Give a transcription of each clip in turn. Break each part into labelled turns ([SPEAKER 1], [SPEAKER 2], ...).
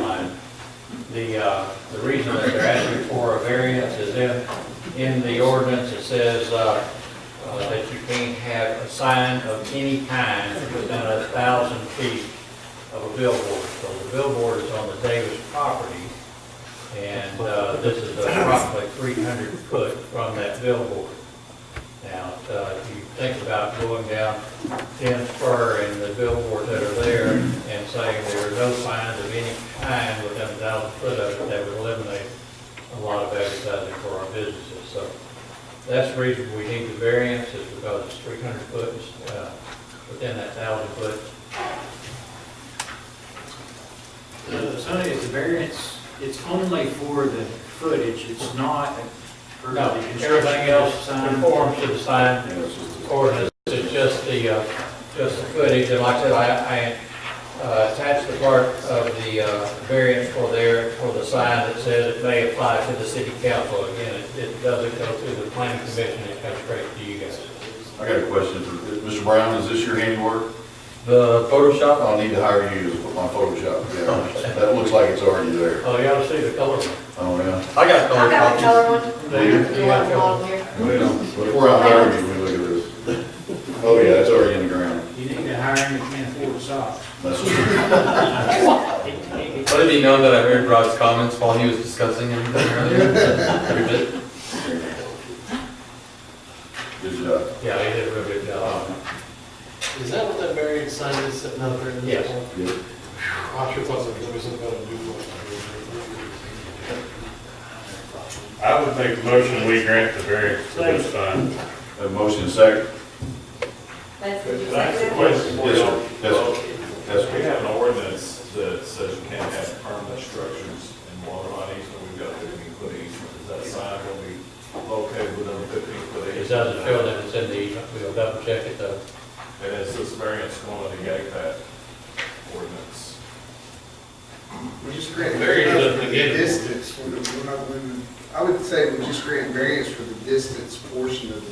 [SPEAKER 1] Uh, The, uh, the reason that they're asking for a variance is in, in the ordinance, it says, uh, uh, that you can't have a sign of any kind within a thousand feet of a billboard. So the billboard is on the Davis property, and, uh, this is approximately three hundred foot from that billboard. Now, uh, if you think about going down Ten Spur and the billboards that are there and saying there are no signs of any kind within a thousand foot of it, that would eliminate a lot of advertising for our businesses. So that's the reason we need the variance is because it's three hundred foot, uh, within that thousand foot.
[SPEAKER 2] Uh, Sonny, it's a variance, it's only for the footage, it's not for the
[SPEAKER 1] No,
[SPEAKER 2] construction.
[SPEAKER 1] everything else
[SPEAKER 2] sign.
[SPEAKER 1] conforms to the sign ordinance, it's just the, uh, just the footage, and like I said, I, I uh, attached the part of the uh, variance for there, for the sign that says it may apply to the city council, again, it- it doesn't go through the planning commission, it comes straight to you guys.
[SPEAKER 3] I got a question for, Mr. Brown, is this your handiwork?
[SPEAKER 4] The Photoshop,
[SPEAKER 3] I'll need to hire you with my Photoshop, yeah. That looks like it's already there.
[SPEAKER 1] Oh, you ought to see the color.
[SPEAKER 3] Oh, yeah.
[SPEAKER 4] I got
[SPEAKER 5] I
[SPEAKER 4] color
[SPEAKER 5] got a
[SPEAKER 4] copies.
[SPEAKER 5] color one.
[SPEAKER 3] There.
[SPEAKER 5] You want a model here?
[SPEAKER 3] Before I hire you, we look at this. Oh, yeah, it's already in the ground.
[SPEAKER 2] You need to hire him if you can't afford the socks.
[SPEAKER 3] That's,
[SPEAKER 4] Let it be known that I heard Rod's comments while he was discussing everything earlier. Every bit.
[SPEAKER 3] good job.
[SPEAKER 1] Yeah, you did a real good job.
[SPEAKER 6] Is that what that variance sign is sitting out there?
[SPEAKER 1] Yes.
[SPEAKER 3] Good.
[SPEAKER 6] I sure thought something was about a duplex.
[SPEAKER 7] I would make the motion, we grant the variance for this sign.
[SPEAKER 3] Have a motion and second?
[SPEAKER 5] That's the
[SPEAKER 8] Can I ask a
[SPEAKER 5] executive.
[SPEAKER 8] question?
[SPEAKER 3] Yes, sir. Yes, sir. Yes, sir.
[SPEAKER 8] We have an ordinance that says you can't have permanent structures in water on easement, we've got fifteen foot easement, is that sign going to be located within fifteen foot easement?
[SPEAKER 1] It doesn't show that it's in the, easement. we'll double check it though.
[SPEAKER 8] And is this variance going to negate that ordinance?
[SPEAKER 9] We just grant
[SPEAKER 7] Very
[SPEAKER 9] variance
[SPEAKER 7] good
[SPEAKER 9] for the
[SPEAKER 7] beginning.
[SPEAKER 9] distance, We're- we're not limited. I would say we just grant variance for the distance portion of it.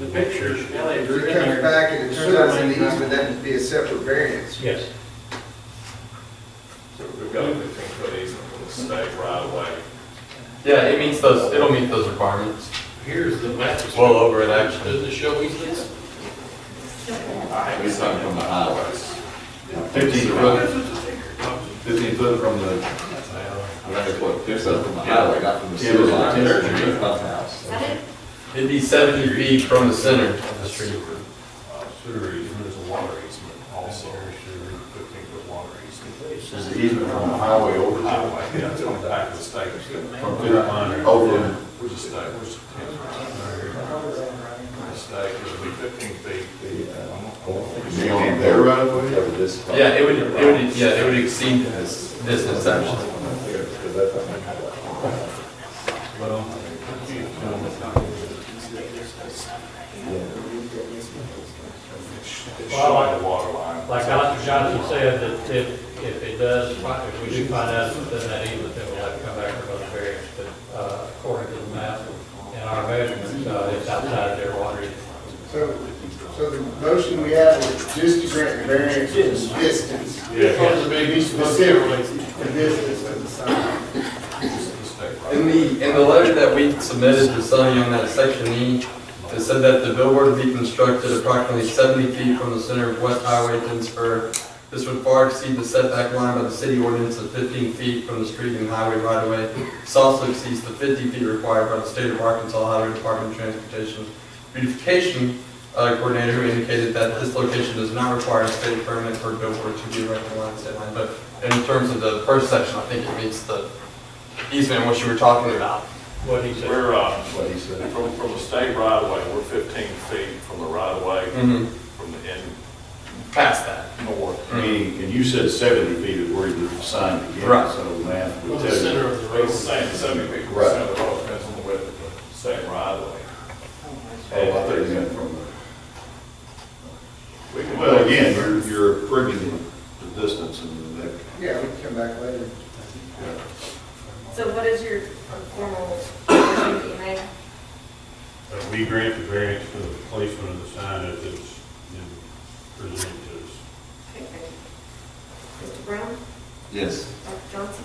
[SPEAKER 2] The pictures, Elliot,
[SPEAKER 9] If
[SPEAKER 2] are
[SPEAKER 9] it
[SPEAKER 2] in
[SPEAKER 9] comes
[SPEAKER 2] there.
[SPEAKER 9] back and it turns out it's an
[SPEAKER 2] Certainly.
[SPEAKER 9] easement, that would be a separate variance.
[SPEAKER 1] Yes,
[SPEAKER 8] So we've got a fifteen foot easement from the state right away.
[SPEAKER 4] Yeah, it meets those, it'll meet those requirements.
[SPEAKER 6] Here's the map.
[SPEAKER 4] It's well over it actually.
[SPEAKER 6] Does it show easements?
[SPEAKER 3] It's not from the highways. Fifteen foot, fifteen foot from the. from the highway, not from the sewer line.
[SPEAKER 5] Is that it?
[SPEAKER 4] It'd be seventy feet from the center of the street.
[SPEAKER 8] uh, Sewer easement is a water easement also. Fifteen foot water easement.
[SPEAKER 3] There's an easement from the highway over to.
[SPEAKER 8] Highway, yeah, it's on the back of the state. From
[SPEAKER 3] From
[SPEAKER 8] the line.
[SPEAKER 3] fifteen, over,
[SPEAKER 8] We're just, uh, we're just. Mistake, it'll be fifteen feet.
[SPEAKER 3] is he on their right of way?
[SPEAKER 4] Yeah, it would, it would, yeah, it would exceed this distance actually.
[SPEAKER 8] Well, I like the water line.
[SPEAKER 1] like Dr. Johnson said, that if, if it does, if we do find out it's within that easement, then we'll have to come back for another variance, but, uh, according to the map and our measurements, uh, it's outside of their water easement.
[SPEAKER 9] So, so the motion we have is just to grant variance for the distance.
[SPEAKER 8] Yeah.
[SPEAKER 9] Be specific, the distance of the sign.
[SPEAKER 4] In the, in the letter that we submitted to Sonny on that section E, it said that the billboard would be constructed approximately seventy feet from the center of West Highway Dinsburg. This would far exceed the setback line by the city ordinance of fifteen feet from the street and highway right of way. This also exceeds the fifty feet required by the state of Arkansas Highway Department of Transportation. Beautification uh, coordinator who indicated that this location does not require a state permit for a billboard to be erected along the state line. But in terms of the first section, I think it meets the easement, what you were talking about.
[SPEAKER 1] What he said.
[SPEAKER 8] We're, uh,
[SPEAKER 3] What he said.
[SPEAKER 8] from, from the state right of way, we're fifteen feet from the right of way,
[SPEAKER 4] Mm-hmm.
[SPEAKER 8] from the end
[SPEAKER 4] Past that.
[SPEAKER 8] north.
[SPEAKER 3] Meaning, and you said seventy feet is where the sign begins,
[SPEAKER 4] Right.
[SPEAKER 3] so math
[SPEAKER 6] From
[SPEAKER 3] would
[SPEAKER 6] the
[SPEAKER 3] tell you.
[SPEAKER 6] center of the road.
[SPEAKER 8] It's saying seventy feet, we're saying it all depends on the width of the state right of way.
[SPEAKER 3] Oh, I thought you meant from the.
[SPEAKER 8] We can-
[SPEAKER 3] Well, again, you're, you're proving the distance and that.
[SPEAKER 9] Yeah, we can come back later.
[SPEAKER 5] So what is your formal motion that you made?
[SPEAKER 7] Uh, We grant the variance for the placement of the sign as it's been presented to us.
[SPEAKER 5] Okay, thank you. Mr. Brown?
[SPEAKER 3] Yes.
[SPEAKER 5] Dr. Johnson?